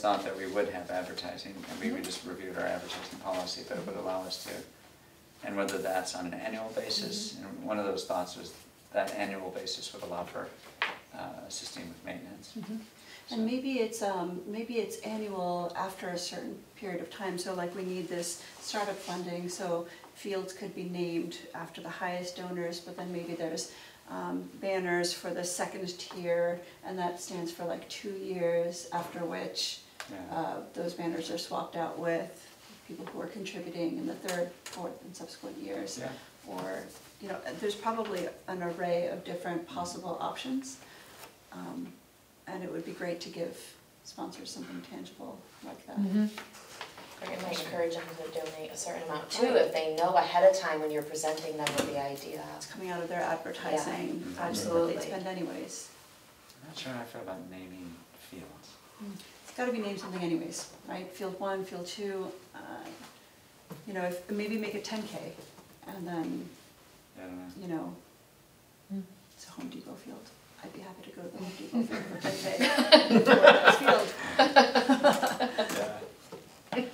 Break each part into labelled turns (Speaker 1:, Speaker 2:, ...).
Speaker 1: thought that we would have advertising, and we we just reviewed our advertising policy that it would allow us to. And whether that's on an annual basis, and one of those thoughts was that annual basis would allow for uh, assisting with maintenance.
Speaker 2: And maybe it's, um, maybe it's annual after a certain period of time, so like we need this startup funding, so fields could be named after the highest donors, but then maybe there's, um, banners for the second tier, and that stands for like two years, after which,
Speaker 1: Yeah,
Speaker 2: uh, those banners are swapped out with people who are contributing in the third, fourth, and subsequent years
Speaker 1: yeah,
Speaker 2: or, you know, there's probably an array of different possible options. Um, And it would be great to give sponsors something tangible like that.
Speaker 3: Or it might encourage them to donate a certain amount too, if they know ahead of time when you're presenting them with the idea.
Speaker 2: It's coming out of their advertising,
Speaker 1: Yeah,
Speaker 2: budget that they
Speaker 3: absolutely.
Speaker 2: spend anyways.
Speaker 1: I'm not sure how I feel about naming fields.
Speaker 2: It's gotta be named something anyways, right? Field one, field two, uh, you know, if, maybe make it ten K and then,
Speaker 1: I don't know.
Speaker 2: you know, it's a Home Depot field. I'd be happy to go to the Home Depot field for ten K. Field.
Speaker 1: Yeah.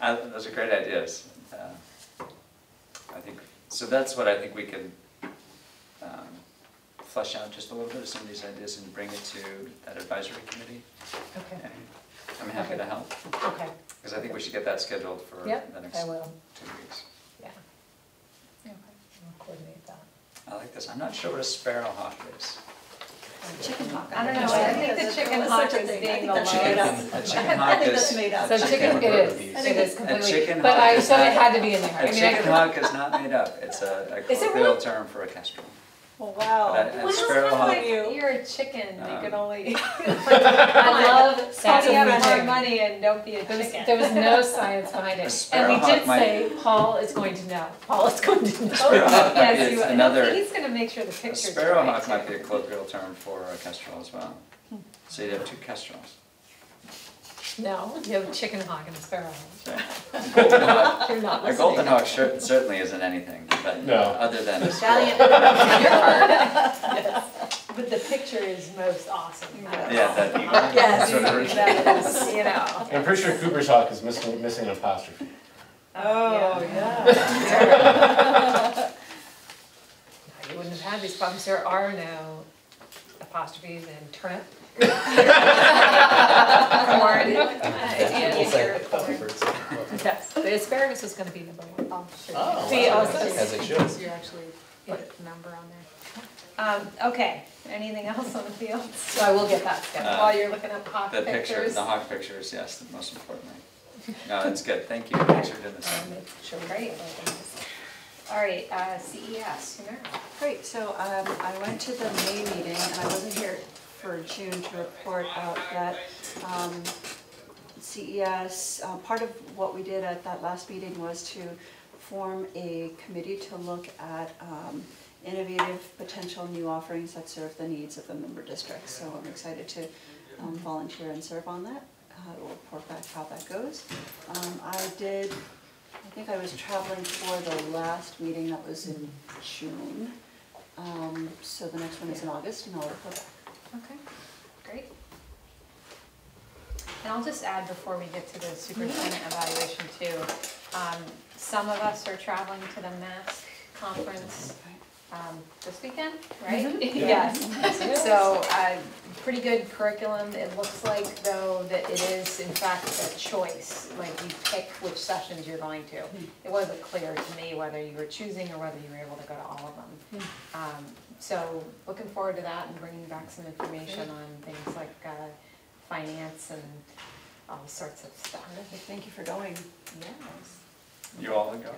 Speaker 1: Uh, those are great ideas. Uh, I think, so that's what I think we can um, flesh out just a little bit of some of these ideas and bring it to that advisory committee.
Speaker 4: Okay,
Speaker 1: And I'm happy to help,
Speaker 4: okay,
Speaker 1: because I think we should get that scheduled for the
Speaker 4: yep,
Speaker 1: next
Speaker 4: I
Speaker 1: two
Speaker 4: will,
Speaker 1: weeks.
Speaker 4: yeah. Okay, I'll coordinate that.
Speaker 1: I like this. I'm not sure what a sparrowhawk is.
Speaker 2: Chicken hawk.
Speaker 4: I don't know,
Speaker 2: understand.
Speaker 4: I think the
Speaker 2: That's-
Speaker 4: chicken
Speaker 2: that's such
Speaker 4: hawk
Speaker 2: a
Speaker 4: is
Speaker 2: thing.
Speaker 4: being
Speaker 2: I think that's made
Speaker 4: allowed.
Speaker 1: A
Speaker 2: up.
Speaker 1: chicken hawk
Speaker 2: I think that's
Speaker 1: is-
Speaker 2: made up.
Speaker 4: So
Speaker 1: Chicken
Speaker 4: chicken, it
Speaker 1: hamburger
Speaker 4: is,
Speaker 1: piece.
Speaker 4: it is
Speaker 2: A
Speaker 4: completely,
Speaker 1: chicken
Speaker 4: but
Speaker 1: hawk
Speaker 4: I,
Speaker 1: is
Speaker 4: so it
Speaker 1: not-
Speaker 4: had to be in there,
Speaker 1: A
Speaker 4: I mean, I
Speaker 1: chicken
Speaker 4: could-
Speaker 1: hawk is not made up. It's a a
Speaker 4: Is it
Speaker 1: colloquial term for a kestrel.
Speaker 4: Oh,
Speaker 2: Well, wow.
Speaker 1: But a- a sparrowhawk
Speaker 5: You're a chicken, you
Speaker 1: Um,
Speaker 5: can only, I love
Speaker 4: That's
Speaker 5: setting up
Speaker 4: amazing.
Speaker 5: more money and don't be a
Speaker 4: There was,
Speaker 5: chicken.
Speaker 4: there was no science behind
Speaker 1: A
Speaker 4: it, and we
Speaker 1: sparrowhawk
Speaker 4: did
Speaker 1: might-
Speaker 4: say, Paul is going to know, Paul is going to know.
Speaker 1: Sparrowhawk might
Speaker 5: Yes,
Speaker 1: be
Speaker 5: you,
Speaker 1: Uh, another.
Speaker 5: he's gonna make sure the
Speaker 1: A
Speaker 5: picture's right.
Speaker 1: sparrowhawk might
Speaker 5: too.
Speaker 1: be a colloquial term for a kestrel as well.
Speaker 5: Hmm.
Speaker 1: So you'd have two kestrels.
Speaker 4: No, you have a chicken hawk and a sparrow,
Speaker 1: So a golden hawk-
Speaker 4: you're not
Speaker 1: A
Speaker 4: listening.
Speaker 1: golden hawk cer- certainly isn't anything, but
Speaker 6: No.
Speaker 1: other than a
Speaker 3: Valiant.
Speaker 1: sparrow.
Speaker 5: But the picture is most awesome.
Speaker 1: Yeah, that eagle.
Speaker 4: Yes.
Speaker 1: sort of original.
Speaker 5: That is, you know.
Speaker 6: I'm pretty sure Cooper's Hawk is missing, missing an apostrophe.
Speaker 5: Oh,
Speaker 4: yeah. You wouldn't have had these problems, there are no apostrophes in turnip. Corn.
Speaker 3: It's like
Speaker 4: Yes, the asparagus was gonna be number one.
Speaker 6: Oh,
Speaker 4: See,
Speaker 6: wow.
Speaker 4: also-
Speaker 6: As it should.
Speaker 3: You're actually put a number on there.
Speaker 5: Um, okay, anything else on the fields?
Speaker 4: So I will get that scheduled.
Speaker 5: While you're looking up hawk
Speaker 1: The picture,
Speaker 5: pictures?
Speaker 1: the hawk picture is, yes, the most important thing. No, that's good, thank you, thanks for doing this.
Speaker 5: um,
Speaker 4: I'll make sure we-
Speaker 5: Great. All right, uh, CES, Humira.
Speaker 2: Great, so um, I went to the May meeting, and I wasn't here for June to report out that um, CES, uh, part of what we did at that last meeting was to form a committee to look at um, innovative potential new offerings that serve the needs of the member districts. So I'm excited to um, volunteer and serve on that. Uh, We'll report back how that goes. Um, I did, I think I was traveling for the last meeting that was in June. Um, So the next one is in August, and I'll report back.
Speaker 5: Okay, great. And I'll just add before we get to the superintendent evaluation too, um, some of us are traveling to the MASC conference, um, this weekend, right? Yes, so, uh, pretty good curriculum, it looks like though that it is in fact a choice, like you pick which sessions you're going to. It wasn't clear to me whether you were choosing or whether you were able to go to all of them. Um, so looking forward to that and bringing back some information on things like, uh, finance and all sorts of stuff.
Speaker 2: Terrific, thank you for going.
Speaker 5: Yes.
Speaker 1: You all are going,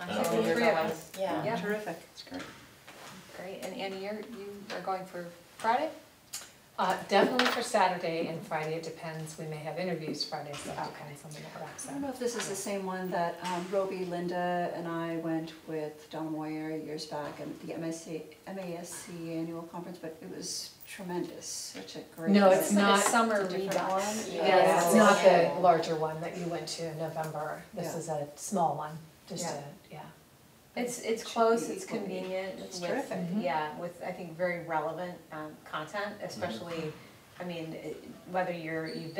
Speaker 5: I
Speaker 6: Oh,
Speaker 5: think the
Speaker 6: you're
Speaker 5: three of us.
Speaker 3: Yeah.
Speaker 5: Yeah.
Speaker 2: Terrific.
Speaker 1: it's great.
Speaker 5: Great, and Annie, you're, you are going for Friday?
Speaker 4: Uh, definitely for Saturday and Friday, it depends, we may have interviews Friday, so that depends on the network,
Speaker 2: I
Speaker 4: so.
Speaker 2: don't know if this is the same one that um, Roby, Linda, and I went with Donna Moyer years back and the MSC, MASC annual conference, but it was tremendous, such a great.
Speaker 4: No, it's
Speaker 5: It's like a
Speaker 4: not.
Speaker 5: summer
Speaker 4: it's a different
Speaker 5: redux.
Speaker 4: one.
Speaker 3: Yeah.
Speaker 4: Yeah, it's
Speaker 3: Yeah.
Speaker 4: not
Speaker 3: Yeah.
Speaker 4: the larger one that you went to in November, this
Speaker 2: Yeah.
Speaker 4: is a small one, just
Speaker 5: Yeah.
Speaker 4: a, yeah.
Speaker 5: It's, it's
Speaker 2: Should
Speaker 5: close,
Speaker 2: be
Speaker 5: it's
Speaker 2: equally-
Speaker 5: convenient
Speaker 2: That's
Speaker 5: with,
Speaker 2: terrific.
Speaker 4: Mhm.
Speaker 5: yeah, with, I think, very relevant, um, content, especially I mean, it- whether you're, you've been